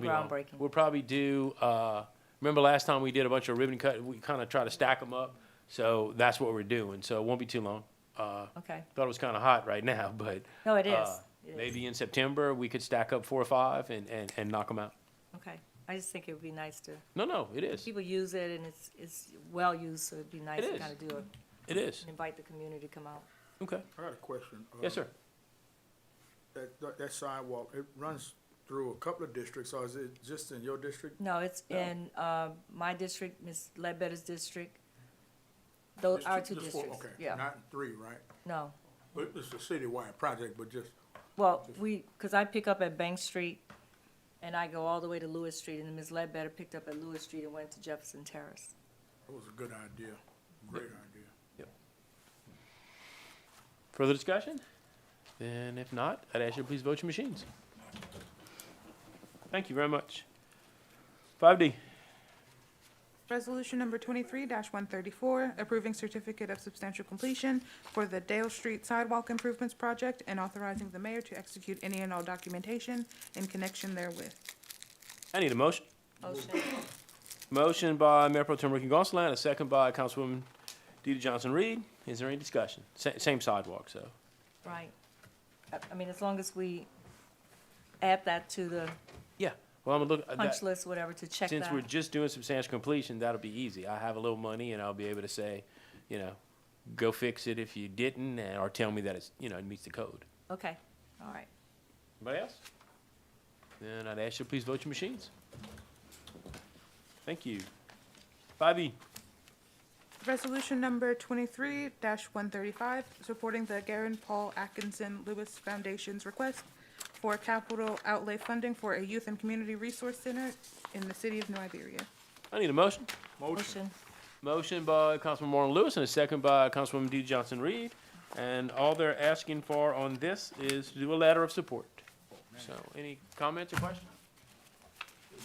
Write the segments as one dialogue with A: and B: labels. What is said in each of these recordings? A: be long.
B: Groundbreaking.
A: We'll probably do, uh, remember last time we did a bunch of ribbon cut, we kind of try to stack them up? So that's what we're doing, so it won't be too long. Uh,
B: Okay.
A: Thought it was kind of hot right now, but.
B: No, it is.
A: uh,
B: It is.
A: Maybe in September, we could stack up four or five and, and, and knock them out.
B: Okay. I just think it would be nice to,
A: No, no, it is,
B: people use it and it's, it's well used, so it'd be nice
A: It
B: to
A: is.
B: kind of do it
A: it is.
B: and invite the community to come out.
A: Okay,
C: I got a question.
A: yes,
C: Um,
A: sir.
C: That, that- that sidewalk, it runs through a couple of districts, or is it just in your district?
B: No, it's
C: No.
B: in, um, my district, Ms. Ledbetter's district. Those
C: It's
B: are
C: ju-
B: Uh, two
C: just four,
B: districts,
C: okay,
B: yeah,
C: Not three, right?
B: no.
C: But it's a citywide project, but just,
B: Well, we, because I pick up at Bank Street and I go all the way to Lewis Street and then Ms. Ledbetter picked up at Lewis Street and went to Jefferson Terrace.
C: it was a good idea, great idea.
A: Further discussion? Then if not, I'd ask you to please vote your machines. Thank you very much. Five D,
D: Resolution number twenty-three one thirty-four, approving certificate of substantial completion for the Dale Street Sidewalk Improvements Project and authorizing the mayor to execute any and all documentation in connection therewith.
A: I need a motion.
B: Motion,
A: Motion by Mayor Pro Tem Ricky Gonsalas, a second by Councilwoman DeeDee Johnson-Reed. Is there any discussion? Sa- Same sidewalk, so.
B: right. I, I mean, as long as we add that to the
A: Yeah, well, I'm gonna look, uh,
B: punch
A: that-
B: list, whatever, to check
A: since
B: that.
A: we're just doing substantial completion, that'll be easy. I have a little money and I'll be able to say, you know, go fix it if you didn't, and- or tell me that it's, you know, it meets the code.
B: Okay, all right.
A: Anybody else? Then I'd ask you to please vote your machines. Thank you. Five E,
D: Resolution number twenty-three one thirty-five, supporting the Garen Paul Atkinson Lewis Foundation's request for capital outlay funding for a youth and community resource center in the city of New Iberia.
A: I need a motion.
C: Motion,
B: Motion,
A: Motion by Councilman Marlon Lewis and a second by Councilwoman D. Johnson Reed. And all they're asking for on this is to do a letter of support. So any comments or questions?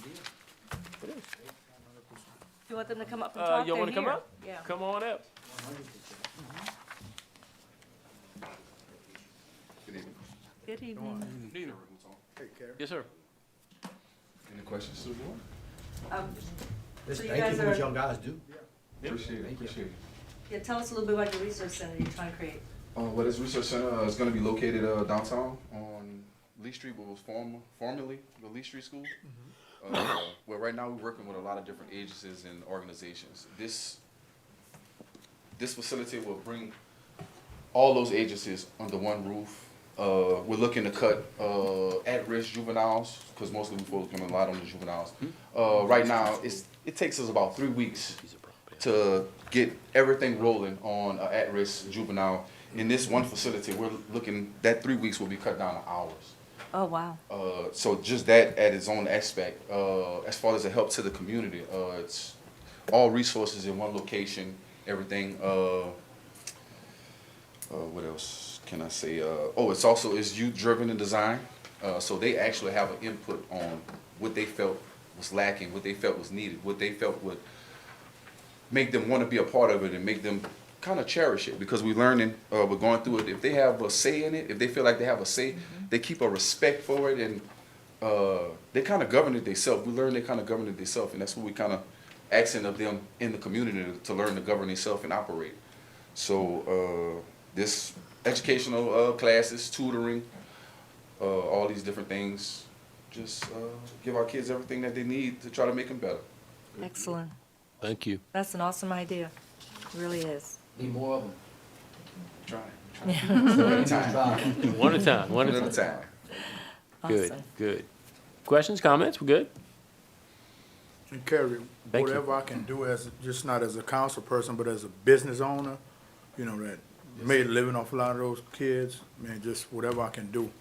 A: It is.
B: you want them to come up and
A: Uh,
B: talk?
A: y'all
B: They're
A: wanna come
B: here.
A: up?
B: Yeah.
A: Come on up.
B: Good evening.
C: hey, Karen.
A: Yes, sir.
E: Any questions to the board?
B: Um,
F: Just
B: So you
F: thank
B: guys
F: you for what
B: are-
F: y'all guys do.
E: Appreciate it, appreciate it.
B: Yeah, tell us a little bit about your resource center you're trying to create.
E: Uh, well, this research center uh, is gonna be located, uh, downtown on Lee Street, what was former, formerly the Lee Street School. Uh, well, right now, we're working with a lot of different agencies and organizations. This, this facility will bring all those agencies under one roof. Uh, we're looking to cut, uh, at-risk juveniles, cause mostly we focus on a lot on the juveniles. Uh, right now, it's, it takes us about three weeks to get everything rolling on an at-risk juvenile. In this one facility, we're looking, that three weeks will be cut down to hours.
B: Oh, wow.
E: Uh, so just that at its own aspect, uh, as far as the help to the community, uh, it's all resources in one location, everything, uh, uh, what else can I say? Uh, oh, it's also, it's youth driven in design. Uh, so they actually have an input on what they felt was lacking, what they felt was needed, what they felt would make them want to be a part of it and make them kind of cherish it because we're learning, uh, we're going through it. If they have a say in it, if they feel like they have a say, they keep a respect for it and uh, they kind of govern it themselves. We learn they kind of govern it themselves, and that's what we kind of accent of them in the community to, to learn to govern themselves and operate. So uh, this educational uh, classes, tutoring, uh, all these different things, just uh, give our kids everything that they need to try to make them better.
B: Excellent.
A: Thank you.
B: That's an awesome idea. Really is.
F: Need more of them.
E: Trying, trying, one at a time,
F: Try 'em.
A: One at a time, one
E: one
A: at a
E: at
A: time.
E: a time.
A: Good,
B: Awesome.
A: good. Questions, comments? We're good?
C: And Kerry,
A: Thank you.
C: whatever I can do as, just not as a council person, but as a business owner, you know, that made a living off a lot of those kids, man, just whatever I can do,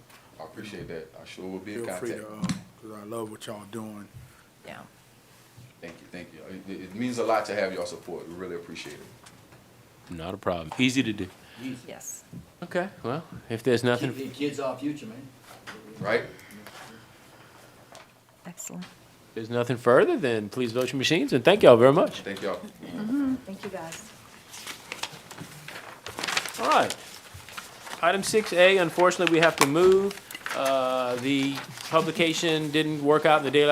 E: I appreciate that. I sure will be in
C: feel free
E: contact.
C: to, uh 'cause I love what y'all doing.
B: Yeah.
E: Thank you, thank you. It, it means a lot to have your support. We really appreciate it.
A: Not a problem. Easy to do.
B: Yes.
A: Okay, well, if there's nothing,
F: Keep the kids our future, man.
E: Right?
B: Excellent.
A: if there's nothing further, then please vote your machines, and thank y'all very much.
E: Thank y'all.
B: Thank you, guys.
A: All right. Item six A, unfortunately, we have to move. Uh, The publication didn't work out in the daylight